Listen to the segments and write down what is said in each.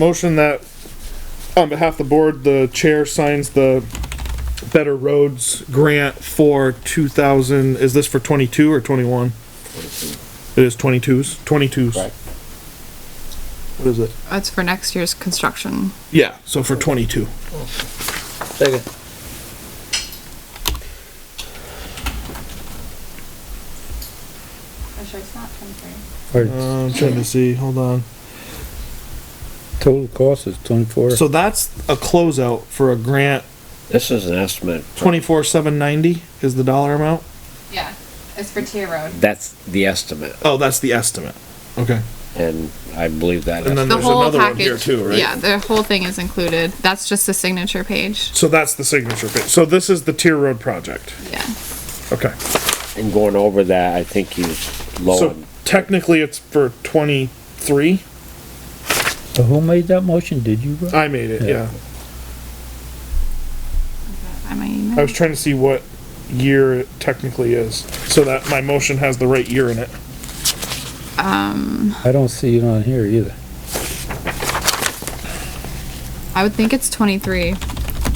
Motion that, on behalf of the board, the chair signs the Better Roads grant for two thousand, is this for twenty-two or twenty-one? It is twenty-twos, twenty-twos. Right. What is it? That's for next year's construction. Yeah, so for twenty-two. Second. I'm Oh, sure it's not twenty-three. Our Uh, I'm trying to see, hold on. total cost is twenty-four. So that's a closeout for a grant, This is an estimate. twenty-four seven ninety is the dollar amount? Yeah, it's for Tier Road. That's the estimate, Oh, that's the estimate. Okay. and I believe that. And then estimate- The There's whole another one here package, too, right? yeah, the whole thing is included. That's just the signature page. So that's the signature page. So this is the tier road project. Yeah. Okay. And going over that, I think he's low. So technically it's for twenty-three. So who made that motion? Did you? Rob? I made it, yeah. By my I email. was trying to see what year it technically is, so that my motion has the right year in it. I don't see it on here either. I would think it's twenty-three.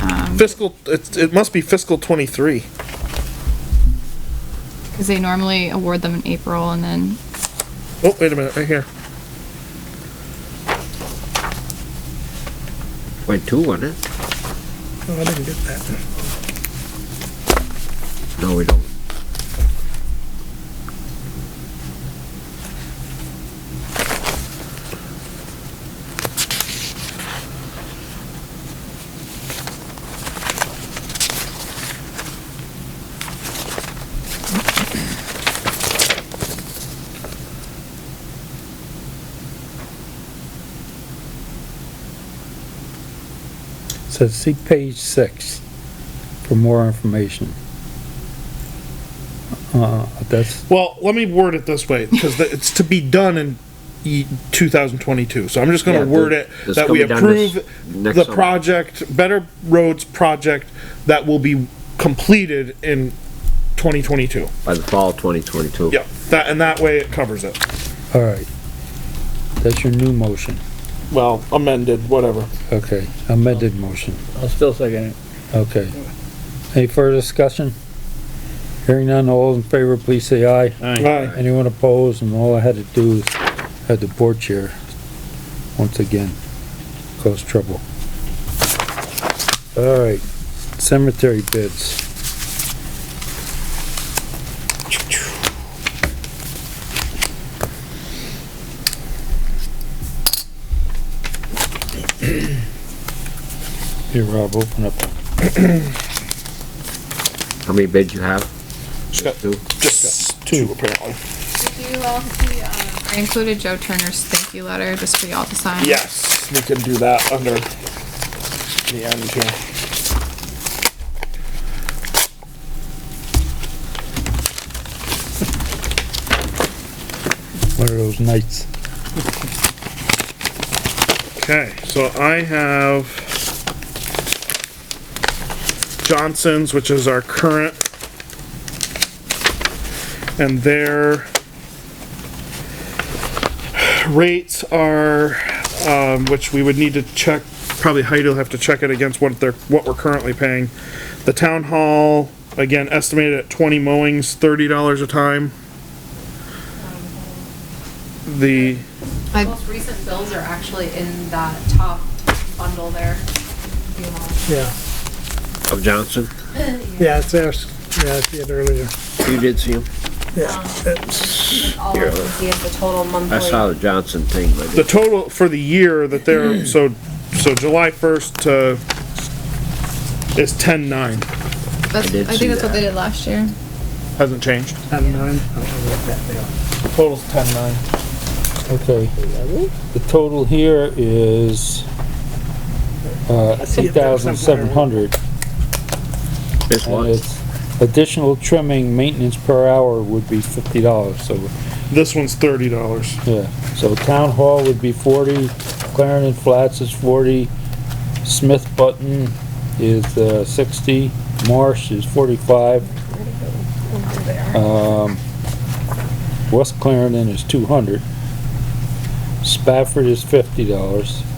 Um, Fiscal, it, it must be fiscal twenty-three. Cause they normally award them in April and then, Oh, wait a minute, right here. Point two, wasn't it? Oh, I didn't get that. No, we don't. So see page six for more information. Uh, that's, Well, let me word it this way, because it's to be done in e, ye- 2022. So I'm just going Yeah, to word th- it this that can we be done this- approve next the summer. project, Better Roads project that will be completed in 2022. By the fall of twenty twenty-two. Yeah, that, and that way it covers it. all right. That's your new motion. Well, amended, whatever. Okay, amended motion. I'll still second it. Okay. Any further discussion? Hearing none, all in favor, please say aye. Aye. Anyone opposed? And all I had to do is had the board chair once again cause trouble. All right, cemetery bids. Here, Rob, open up. How many bids you have? Just Two? Just two, apparently. Did you all see, um, I included Joe Turner's thank you letter just for y'all to sign. Yes, we can do that under the end here. One of those nights. Okay, so I have Johnson's, which is our current. And their rates are, um, which we would need to check, probably Heidi will have to check it against what they're, what we're currently paying. The town hall, again, estimated at twenty mowings, thirty dollars a time. The. the most recent bills are actually in that top bundle there. You know. Yeah, Of Johnson? yeah, it's theirs. Yeah, I see it earlier. You did see him? All I can see is the total Oh, monthly. I saw the Johnson thing, but I the didn't- total for the year that they're, so, so July first to is ten nine, That's, did I see think that's what that. they did last year. hasn't changed. Ten nine. I'll Total's ten nine. Okay. The total here is, uh, see eight it there thousand somewhere. seven hundred. this And one, it's additional trimming, maintenance per hour would be fifty dollars, so, This one's thirty dollars. yeah. So town hall would be forty, Clarendon Flats is forty, Smith Button is, uh, sixty, Marsh is forty-five. Um, West Clarendon is two hundred. Spafford is fifty dollars.